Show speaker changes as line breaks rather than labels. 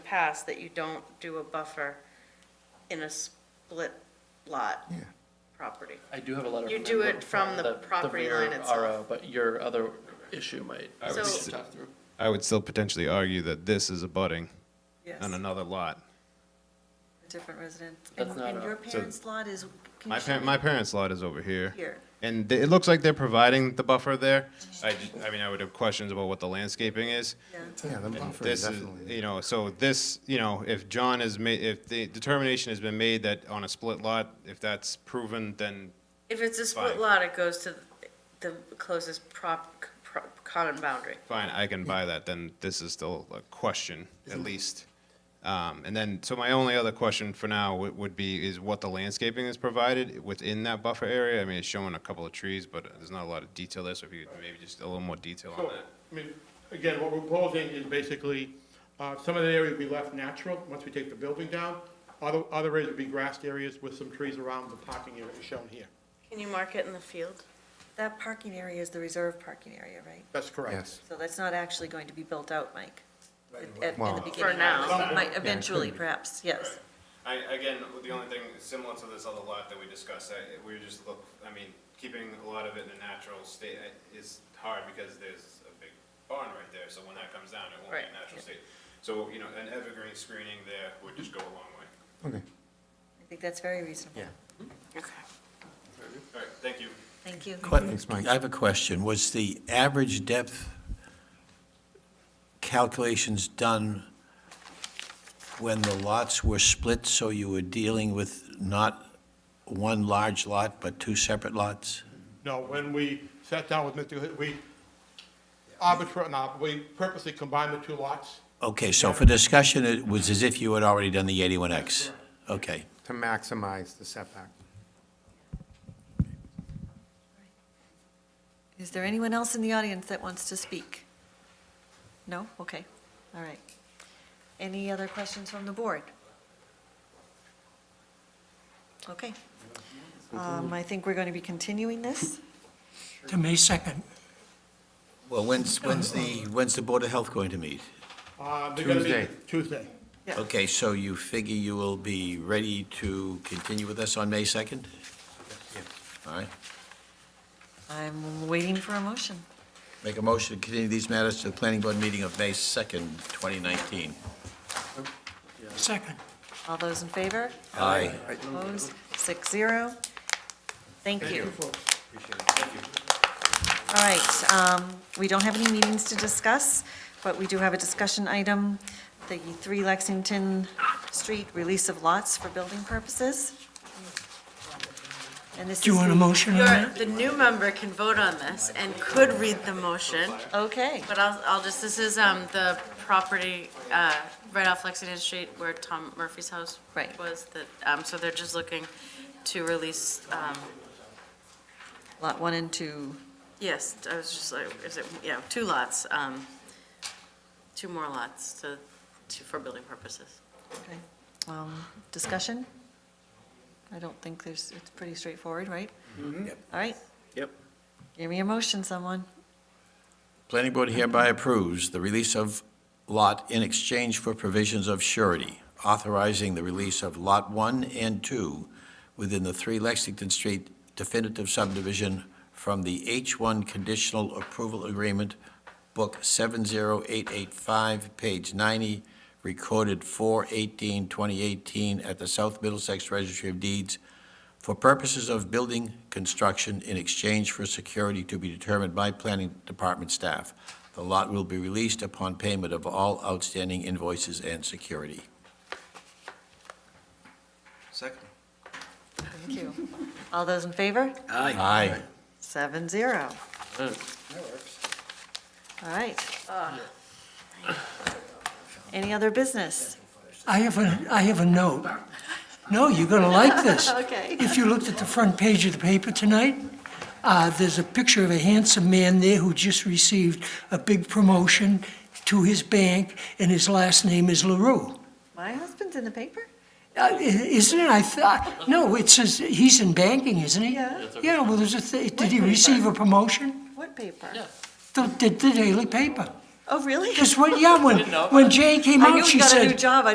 past that you don't do a buffer in a split lot
Yeah.
property.
I do have a letter.
You
from
do
the-
it from the property
rear
line itself.
RO, But your other issue might.
would
we
s-
should talk through.
I would still potentially argue that this is abutting
Yes,
on another lot.
different residents.
That's
And
not
and
a-
your
So-
parents' lot is, can
My
you show
parent,
me
my parents' lot is over here.
here?
And th- it looks like they're providing the buffer there. I, ju- I mean, I would have questions about what the landscaping is.
Yeah.
Yeah, the buffer is
This is,
definitely.
you know, so this, you know, if John has made, if the determination has been made that on a split lot, if that's proven, then
If it's a split
Fine.
lot, it goes to the closest prop, pro- common boundary.
fine, I can buy that, then this is still a question, at least. Um, and then, so my only other question for now would, would be, is what the landscaping is provided within that buffer area? I mean, it's showing a couple of trees, but there's not a lot of detail there, so if you could maybe just a little more detail on
So,
that.
I mean, again, what we're proposing is basically, uh, some of the area would be left natural, once we take the building down. Other, other areas would be grassed areas with some trees around the parking area shown here.
Can you mark it in the field?
That parking area is the reserve parking area, right?
That's correct.
Yes.
So that's not actually going to be built out, Mike, at- at- in
Well-
the
For
beginning.
now.
Might- Eventually, perhaps, yes.
I, again, the only thing similar to this other lot that we discussed, I, we just look, I mean, keeping a lot of it in a natural state uh, is hard because there's a big barn right there, so when that comes down, it won't be
Right,
a natural state. So, you know, an evergreen screening there would just go a long way.
Okay.
I think that's very reasonable.
Yeah.
Okay.
All right, thank you.
Thank you.
Thanks, Mike.
I have a question. Was the average depth calculations done when the lots were split, so you were dealing with not one large lot, but two separate lots?
No, when we sat down with Mr. Hood, we arbitrarily, no, we purposely combined the two lots.
Okay, so for discussion, it was as if you had already done the 81X? Okay.
To maximize the setback.
Is there anyone else in the audience that wants to speak? No? Okay, all right. Any other questions from the board? Okay. Um, I think we're going to be continuing this.
to May 2nd.
Well, when's, when's the, when's the Board of Health going to meet?
Uh, they're gonna be-
Tuesday.
Tuesday.
Yeah.
Okay, so you figure you will be ready to continue with us on May 2nd? All right.
I'm waiting for a motion.
Make a motion to continue these matters to the planning board meeting of May 2nd, 2019.
Second.
All those in favor?
Aye.
Opposed? Six zero. Thank you. All right, um, we don't have any meetings to discuss, but we do have a discussion item, the 3 Lexington Street release of lots for building purposes. And this is.
Do you want a
the-
motion on
Your,
that?
the new member can vote on this and could read the motion,
Okay,
but I'll, I'll just, this is, um, the property, uh, right off Lexington Street where Tom Murphy's house
Right.
was, that, um, so they're just looking to release, um,
lot one and two.
Yes, I was just like, is it, yeah, two lots, um, two more lots to, to, for building purposes.
Okay. Um, Discussion? I don't think there's, it's pretty straightforward, right?
Mm-hmm.
Yep.
All right,
Yep.
give me a motion, someone.
Planning board hereby approves the release of lot in exchange for provisions of surety, authorizing the release of Lot 1 and 2 within the 3 Lexington Street definitive subdivision from the H1 Conditional Approval Agreement, Book 70885, page 90, recorded 4/18/2018 at the South Middlesex Registry of Deeds, for purposes of building construction in exchange for security to be determined by planning department staff. The lot will be released upon payment of all outstanding invoices and security.
Thank you. All those in favor?
Aye.
Seven zero. All right.
Ah.
Any other business?
I have a, I have a note. No, you're going to like this.
Okay.
If you looked at the front page of the paper tonight, uh, there's a picture of a handsome man there who just received a big promotion to his bank, and his last name is LaRue.
My husband's in the paper?
Uh, i- Isn't it? I thought, no, it says, he's in banking, isn't he?
Yeah.
Yeah, well, there's a, thi- did he receive a promotion?
What paper?
The the- the Daily Paper.
Oh, really?
Because when, yeah, when,
Didn't know.
when Jay came
I knew
out,
he
she
got a new
said,
job. I